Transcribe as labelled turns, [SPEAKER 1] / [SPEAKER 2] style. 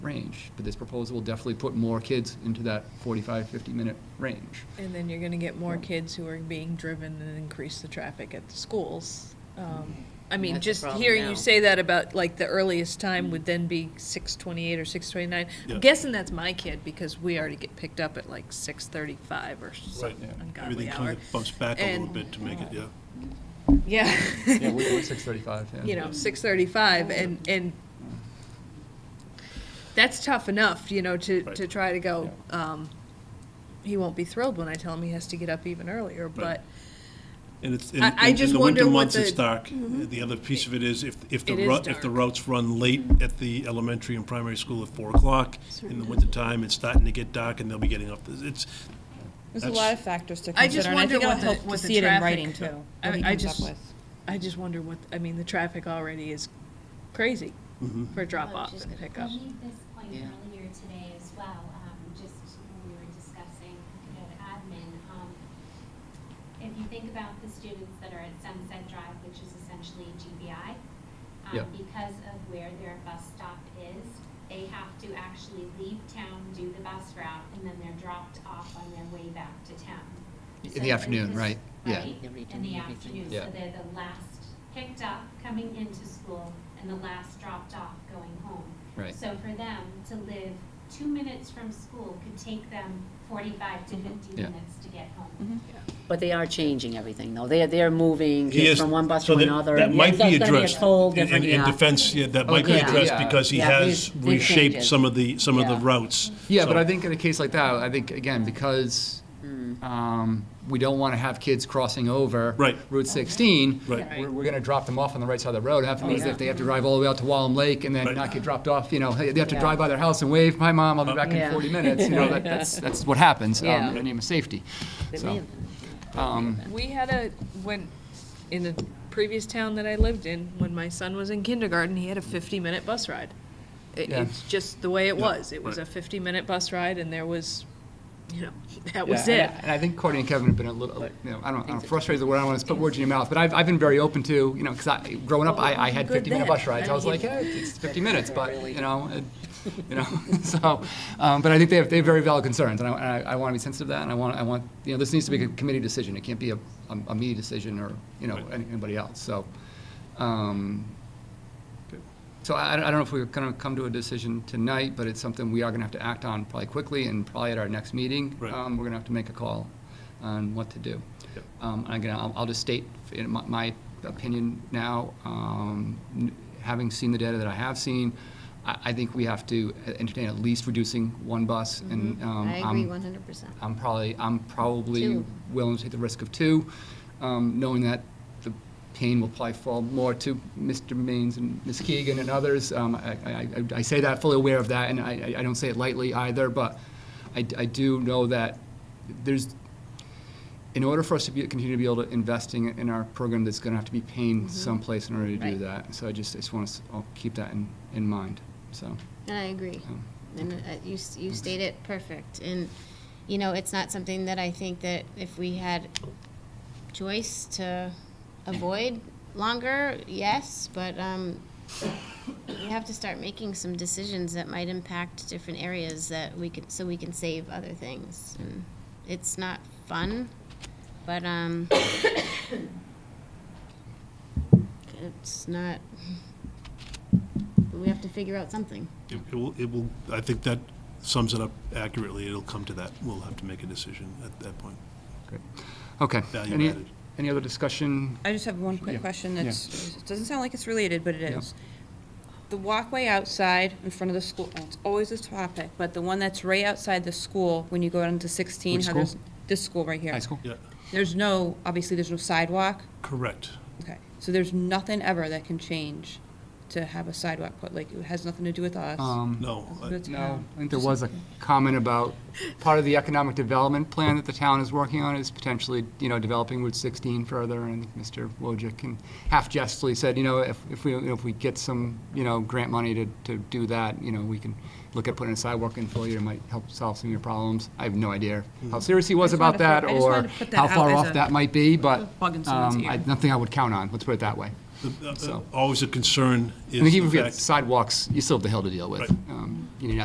[SPEAKER 1] range, but this proposal will definitely put more kids into that 45, 50-minute range.
[SPEAKER 2] And then you're gonna get more kids who are being driven and increase the traffic at the schools. Um, I mean,
[SPEAKER 3] That's the
[SPEAKER 2] just
[SPEAKER 3] problem
[SPEAKER 2] hearing
[SPEAKER 3] now.
[SPEAKER 2] you say that about, like, the earliest time would then be six twenty-eight or six twenty-nine.
[SPEAKER 4] Mm-hmm. Yeah.
[SPEAKER 2] I'm guessing that's my kid, because we already get picked up at like six thirty-five or some
[SPEAKER 4] Right.
[SPEAKER 2] ungodly
[SPEAKER 4] Everything kind
[SPEAKER 2] hour.
[SPEAKER 4] of bumps back a little
[SPEAKER 2] And-
[SPEAKER 4] bit to make it, yeah.
[SPEAKER 2] Yeah.
[SPEAKER 1] Yeah, we're we're 6:35, yeah.
[SPEAKER 2] you know, six thirty-five, and, and that's tough enough, you know, to,
[SPEAKER 4] Right.
[SPEAKER 2] to try to go, um, he won't be thrilled when I tell him he has to get up even earlier, but
[SPEAKER 4] And it's, in,
[SPEAKER 2] I- I
[SPEAKER 4] in- in
[SPEAKER 2] just
[SPEAKER 4] the winter
[SPEAKER 2] wonder what
[SPEAKER 4] months, it's
[SPEAKER 2] the- Mm-hmm.
[SPEAKER 4] dark. The other piece of it is if, if the
[SPEAKER 2] It is
[SPEAKER 4] route, if the
[SPEAKER 2] dark.
[SPEAKER 4] routes run late at the elementary and primary school at four o'clock in the wintertime, it's starting to get dark and they'll be getting up. It's,
[SPEAKER 5] There's a
[SPEAKER 4] That's-
[SPEAKER 5] lot of factors to
[SPEAKER 2] I just
[SPEAKER 5] consider, and I
[SPEAKER 2] wonder
[SPEAKER 5] think it'll
[SPEAKER 2] what the-
[SPEAKER 5] help to
[SPEAKER 2] what the
[SPEAKER 5] see it in
[SPEAKER 2] traffic-
[SPEAKER 5] writing too.
[SPEAKER 2] I-
[SPEAKER 5] what he
[SPEAKER 2] I
[SPEAKER 5] comes up
[SPEAKER 2] just-
[SPEAKER 5] with.
[SPEAKER 2] I just wonder what, I mean, the traffic already is crazy for drop-off
[SPEAKER 3] just
[SPEAKER 2] and pickup.
[SPEAKER 6] I Um, made this point
[SPEAKER 3] Yeah.
[SPEAKER 6] earlier today as well, um, just when we were discussing the admin. Um, If you think about the students that are at Sunset Drive, which is essentially GBI, um,
[SPEAKER 1] Yeah.
[SPEAKER 6] because of where their bus stop is, they have to actually leave town, do the bus route, and then they're dropped off on their way back to town.
[SPEAKER 1] In
[SPEAKER 6] So
[SPEAKER 1] the afternoon,
[SPEAKER 6] this-
[SPEAKER 1] right? Yeah.
[SPEAKER 6] Right,
[SPEAKER 3] They're
[SPEAKER 6] in the
[SPEAKER 3] redoing everything.
[SPEAKER 6] afternoon,
[SPEAKER 1] Yeah.
[SPEAKER 6] so they're the last picked up coming into school and the last dropped off going home.
[SPEAKER 1] Right.
[SPEAKER 6] So for them to live two minutes from school could take them forty-five to fifty
[SPEAKER 1] Mm-hmm. Yeah.
[SPEAKER 6] minutes to get home.
[SPEAKER 3] But they are changing everything, though. They're, they're moving
[SPEAKER 4] He
[SPEAKER 3] kids
[SPEAKER 4] is-
[SPEAKER 3] from one bus
[SPEAKER 4] so
[SPEAKER 3] to
[SPEAKER 4] that-
[SPEAKER 3] another.
[SPEAKER 4] That
[SPEAKER 3] and
[SPEAKER 4] might
[SPEAKER 3] that's
[SPEAKER 4] be
[SPEAKER 3] gonna
[SPEAKER 4] addressed.
[SPEAKER 3] a whole
[SPEAKER 4] In- in-
[SPEAKER 3] different,
[SPEAKER 4] In
[SPEAKER 3] yeah. Oh,
[SPEAKER 4] defense, yeah, that might be
[SPEAKER 3] yeah.
[SPEAKER 4] addressed
[SPEAKER 1] Yeah.
[SPEAKER 4] because he
[SPEAKER 3] Yeah,
[SPEAKER 4] has
[SPEAKER 3] these- these
[SPEAKER 4] reshaped
[SPEAKER 3] changes.
[SPEAKER 4] some of the, some of the
[SPEAKER 3] Yeah.
[SPEAKER 4] routes.
[SPEAKER 1] Yeah, but
[SPEAKER 4] So-
[SPEAKER 1] I think in a case like that, I think, again, because um, we don't want to have kids crossing over
[SPEAKER 4] Right.
[SPEAKER 1] Route 16,
[SPEAKER 4] Right.
[SPEAKER 1] we're going to drop them off on the right side of the road, have to, if they have to drive all the way out to Wallem Lake and then
[SPEAKER 4] Right.
[SPEAKER 1] not get dropped off, you know, hey, they have to
[SPEAKER 3] Yeah.
[SPEAKER 1] drive by their house and wave, "Hi, Mom, I'll be back in
[SPEAKER 3] Yeah.
[SPEAKER 1] 40 minutes," you know, that- that's, that's what happens um,
[SPEAKER 3] Yeah.
[SPEAKER 1] in the name of safety.
[SPEAKER 3] They
[SPEAKER 1] So,
[SPEAKER 3] reinvent it.
[SPEAKER 1] um,
[SPEAKER 2] We had a, when, in the previous town that I lived in, when my son was in kindergarten, he had a fifty-minute bus ride. It,
[SPEAKER 1] Yeah.
[SPEAKER 2] it's just the way it
[SPEAKER 4] Yeah,
[SPEAKER 2] was. It was a
[SPEAKER 4] right.
[SPEAKER 2] fifty-minute bus ride, and there was, you know, that was
[SPEAKER 1] Yeah,
[SPEAKER 2] it.
[SPEAKER 1] and I- And I think Courtney and Kevin have been a little, you know, I don't, I don't frustrated is the word I want to put words in your mouth, but I've, I've been very open to, you know, because I, growing up, I, I had
[SPEAKER 2] Good
[SPEAKER 1] fifty-minute
[SPEAKER 2] then.
[SPEAKER 1] bus rides. I was like, hey, it's fifty minutes, but, you know, it- you know, so, um, but I think they have, they have very valid concerns, and I, and I, I want to be sensitive to that, and I want, I want, you know, this needs to be a committee decision. It can't be a, a, a me decision or, you know, any- anybody else, so. um, So I, I don't know if we're going to come to a decision tonight, but it's something we are going to have to act on probably quickly and probably at our next meeting.
[SPEAKER 4] Right.
[SPEAKER 1] um, We're going to have to make a call on what to do.
[SPEAKER 4] Yep.
[SPEAKER 1] Um, and Again, I'll, I'll just state in my, my opinion now, um, n- having seen the data that I have seen, I, I think we have to entertain at least reducing one bus and. um,
[SPEAKER 7] Mm-hmm. I agree
[SPEAKER 1] I'm-
[SPEAKER 7] one hundred percent.
[SPEAKER 1] I'm probably, I'm probably
[SPEAKER 7] Two.
[SPEAKER 1] willing to take the risk of two, um, knowing that the pain will probably fall more to Mr. Maines and Ms. Keegan and others. Um, I, I- I- I say that, fully aware of that, and I, I- I don't say it lightly either, but I, I do know that there's, in order for us to be, continue to be able to invest in, in our program, there's gonna have to be pain someplace in order to do
[SPEAKER 7] Mm-hmm. Right.
[SPEAKER 1] that. So I just, I just want to, I'll keep that in, in mind, so.
[SPEAKER 7] And I agree.
[SPEAKER 1] um,
[SPEAKER 7] And uh, you, s- you state it perfect. And, you know, it's not something that I think that if we had choice to avoid longer, yes, but, um, we have to start making some decisions that might impact different areas that we could, so we can save other things. And It's not fun, but, um, it's not, we have to figure out something.
[SPEAKER 4] It it will, it will, I think that sums it up accurately. It'll come to that. We'll have to make a decision at that point.
[SPEAKER 1] great. Okay.
[SPEAKER 4] Value
[SPEAKER 1] Any-
[SPEAKER 4] added.
[SPEAKER 1] Any other discussion?
[SPEAKER 5] I just have one
[SPEAKER 1] Yeah.
[SPEAKER 5] quick question that's, it doesn't sound like it's related, but it is. The walkway outside in front of the school, well, it's always a topic, but the one that's right outside the school, when you go down to sixteen,
[SPEAKER 1] Which
[SPEAKER 5] how
[SPEAKER 1] school?
[SPEAKER 5] there's, this school right here.
[SPEAKER 1] High school?
[SPEAKER 4] Yeah,
[SPEAKER 5] There's no, obviously, there's no sidewalk.
[SPEAKER 4] correct.
[SPEAKER 5] Okay, so there's nothing ever that can change to have a sidewalk put, like, it has nothing to do with us.
[SPEAKER 1] Um,
[SPEAKER 4] No.
[SPEAKER 5] It's
[SPEAKER 4] I-
[SPEAKER 5] with
[SPEAKER 1] No,
[SPEAKER 5] town.
[SPEAKER 1] I think there was a comment about, part of the economic development plan that the town is working on is potentially, you know, developing Route 16 further, and I think Mr. Wojcik and half jestfully said, you know, if, if we, you know, if we get some, you know, grant money to, to do that, you know, we can look at putting a sidewalk in for you, it might help solve some of your problems. I have no idea how serious he was
[SPEAKER 5] just
[SPEAKER 1] about
[SPEAKER 5] wanted to
[SPEAKER 1] that,
[SPEAKER 5] put- I just
[SPEAKER 1] or
[SPEAKER 5] wanted to put that
[SPEAKER 1] how
[SPEAKER 5] out
[SPEAKER 1] far
[SPEAKER 5] as
[SPEAKER 1] off
[SPEAKER 5] a
[SPEAKER 1] that might be, but
[SPEAKER 5] bug in someone's
[SPEAKER 1] um, I-
[SPEAKER 5] ear.
[SPEAKER 1] nothing I would count on, let's put it that way.
[SPEAKER 4] The- uh,
[SPEAKER 1] So-
[SPEAKER 4] Always a concern is
[SPEAKER 1] I think even
[SPEAKER 4] the
[SPEAKER 1] if you had
[SPEAKER 4] fact
[SPEAKER 1] sidewalks, you still have the hill to deal with.
[SPEAKER 4] Right.
[SPEAKER 1] Um, You know, you're not